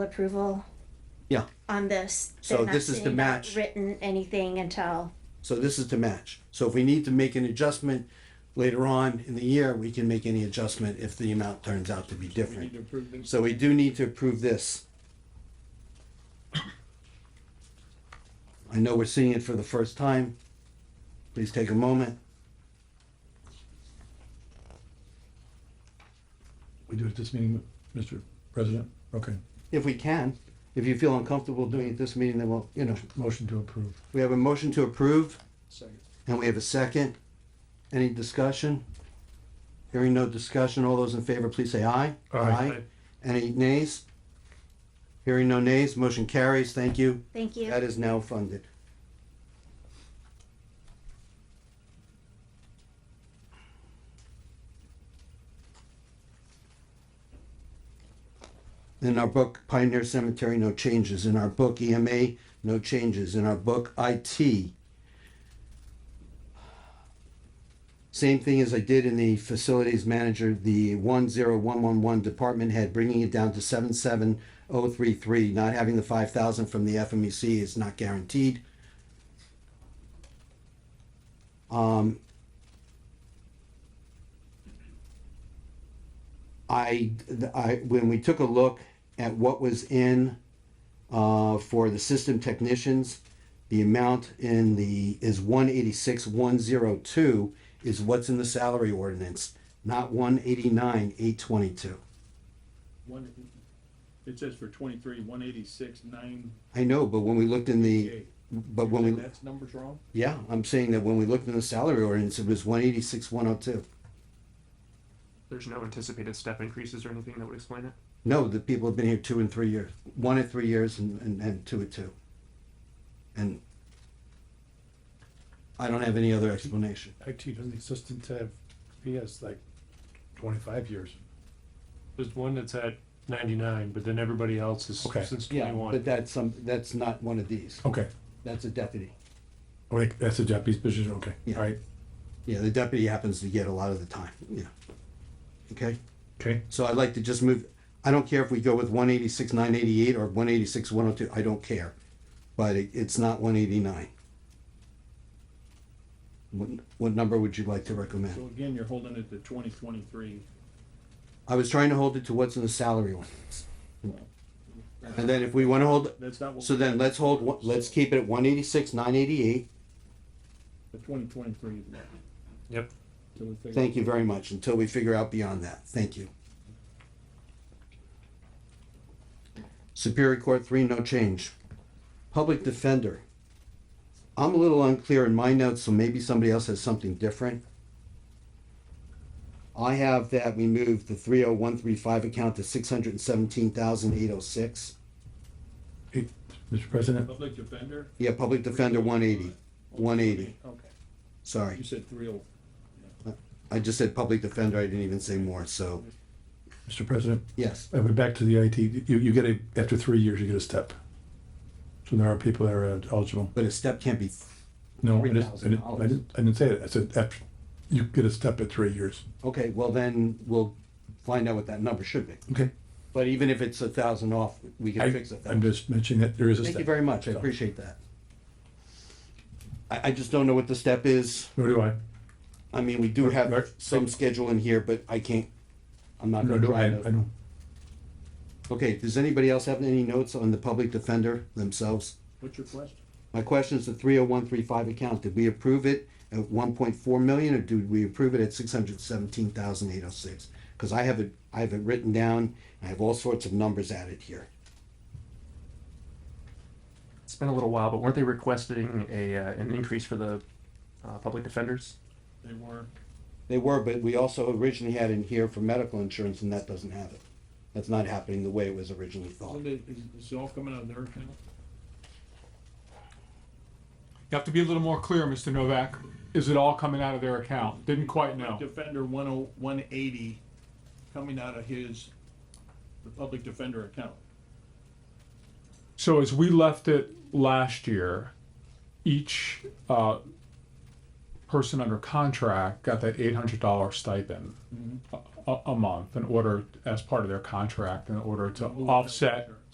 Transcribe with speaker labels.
Speaker 1: approval.
Speaker 2: Yeah.
Speaker 1: On this.
Speaker 2: So
Speaker 1: They're not
Speaker 2: this is to
Speaker 1: sitting down
Speaker 2: match.
Speaker 1: Written anything until,
Speaker 2: So this is to match. So if we need to make an adjustment later on in the year, we can make any adjustment if the amount turns out to be different.
Speaker 3: approve this.
Speaker 2: So we do need to approve this. I know we're seeing it for the first time. Please take a moment.
Speaker 3: We do it at this meeting, Mr. President? Okay,
Speaker 2: If we can, if you feel uncomfortable doing it this meeting, then we'll, you know,
Speaker 3: motion to approve.
Speaker 2: we have a motion to approve
Speaker 3: Second.
Speaker 2: and we have a second. Any discussion? Hearing no discussion, all those in favor, please say aye.
Speaker 3: Aye.
Speaker 2: Any nays? Hearing no nays, motion carries. Thank you.
Speaker 1: thank you.
Speaker 2: That is now funded. In our book Pioneer Cemetery, no changes. In our book EMA, no changes. In our book IT, same thing as I did in the facilities manager, the one zero one one one department head, bringing it down to seven seven oh three three, not having the five thousand from the FMEC is not guaranteed. Um, I, th- I, when we took a look at what was in, uh, for the system technicians, the amount in the, is one eighty-six, one zero two, is what's in the salary ordinance, not one eighty-nine, eight twenty-two.
Speaker 4: One, it says for twenty-three, one eighty-six, nine
Speaker 2: I know, but when we looked in the,
Speaker 4: eight.
Speaker 2: but when we,
Speaker 4: That's numbers wrong?
Speaker 2: yeah, I'm saying that when we looked in the salary ordinance, it was one eighty-six, one oh two.
Speaker 5: There's no anticipated step increases or anything that would explain it.
Speaker 2: No, the people have been here two and three years, one and three years and, and, and two and two. And I don't have any other explanation.
Speaker 3: IT doesn't exist until PS like twenty-five years.
Speaker 6: There's one that's at ninety-nine, but then everybody else is
Speaker 3: Okay.
Speaker 6: since
Speaker 2: Yeah, but
Speaker 6: twenty-one.
Speaker 2: that's some, that's not one of these.
Speaker 3: Okay,
Speaker 2: That's a deputy.
Speaker 3: like, that's a Japanese position, okay,
Speaker 2: Yeah.
Speaker 3: all right,
Speaker 2: Yeah, the deputy happens to get a lot of the time, yeah. Okay,
Speaker 3: okay.
Speaker 2: so I'd like to just move, I don't care if we go with one eighty-six, nine eighty-eight or one eighty-six, one oh two, I don't care. But it, it's not one eighty-nine. What, what number would you like to recommend?
Speaker 4: So again, you're holding it to twenty twenty-three.
Speaker 2: I was trying to hold it to what's in the salary ordinance. And then if we wanna hold,
Speaker 4: That's not what.
Speaker 2: so then let's hold, one- let's keep it at one eighty-six, nine eighty-eight.
Speaker 4: The twenty twenty-three is what.
Speaker 6: Yep.
Speaker 4: So we figure-
Speaker 2: Thank you very much, until we figure out beyond that, thank you. Superior Court three, no change. Public Defender. I'm a little unclear in my notes, so maybe somebody else has something different. I have that we moved the three oh one three five account to six hundred and seventeen thousand eight oh six.
Speaker 3: Hey, Mr. President,
Speaker 4: Public defender?
Speaker 2: Yeah, Public Defender one eighty, one eighty,
Speaker 4: Okay, you
Speaker 2: sorry.
Speaker 4: said three oh,
Speaker 2: I just said Public Defender, I didn't even say more, so,
Speaker 3: Mr. President,
Speaker 2: yes.
Speaker 3: I went back to the IT, you, you get a, after three years, you get a step. So there are people that are eligible.
Speaker 2: But a step can't be,
Speaker 3: No, I didn't, I didn't,
Speaker 2: $3,000.
Speaker 3: I didn't, I didn't say it, I said, after, you get a step at three years.
Speaker 2: okay, well then, we'll find out what that number should be.
Speaker 3: Okay.
Speaker 2: But even if it's a thousand off, we can
Speaker 3: I,
Speaker 2: fix it.
Speaker 3: I'm just mentioning that there is a step.
Speaker 2: Thank you very much, I
Speaker 3: So,
Speaker 2: appreciate that. I, I just don't know what the step is.
Speaker 3: Nor do I.
Speaker 2: I mean, we do
Speaker 3: Right.
Speaker 2: have some schedule in here, but I can't, I'm not
Speaker 3: Nor
Speaker 2: gonna
Speaker 3: do I,
Speaker 2: try
Speaker 3: I
Speaker 2: to.
Speaker 3: know.
Speaker 2: Okay, does anybody else have any notes on the public defender themselves?
Speaker 4: what's your question?
Speaker 2: My question is the three oh one three five account, did we approve it at one point four million or did we approve it at six hundred seventeen thousand eight oh six? Cause I have it, I have it written down, I have all sorts of numbers added here.
Speaker 5: It's been a little while, but weren't they requesting a uh, an increase for the uh, public defenders?
Speaker 4: They were,
Speaker 2: They were, but we also originally had in here for medical insurance and that doesn't have it. That's not happening the way it was originally
Speaker 4: so
Speaker 2: thought.
Speaker 4: they, is, is it all coming out of their account?
Speaker 7: You have to be a little more clear, Mr. Novak. Is it all coming out of their account? Didn't quite know.
Speaker 4: Defender one oh, one eighty, coming out of his, the public defender account.
Speaker 7: So as we left it last year, each uh, person under contract got that eight hundred dollar
Speaker 2: Mm-hmm.
Speaker 7: stipend a, a- a month in order as part of their contract in order to
Speaker 4: Ooh,
Speaker 7: offset
Speaker 4: sure.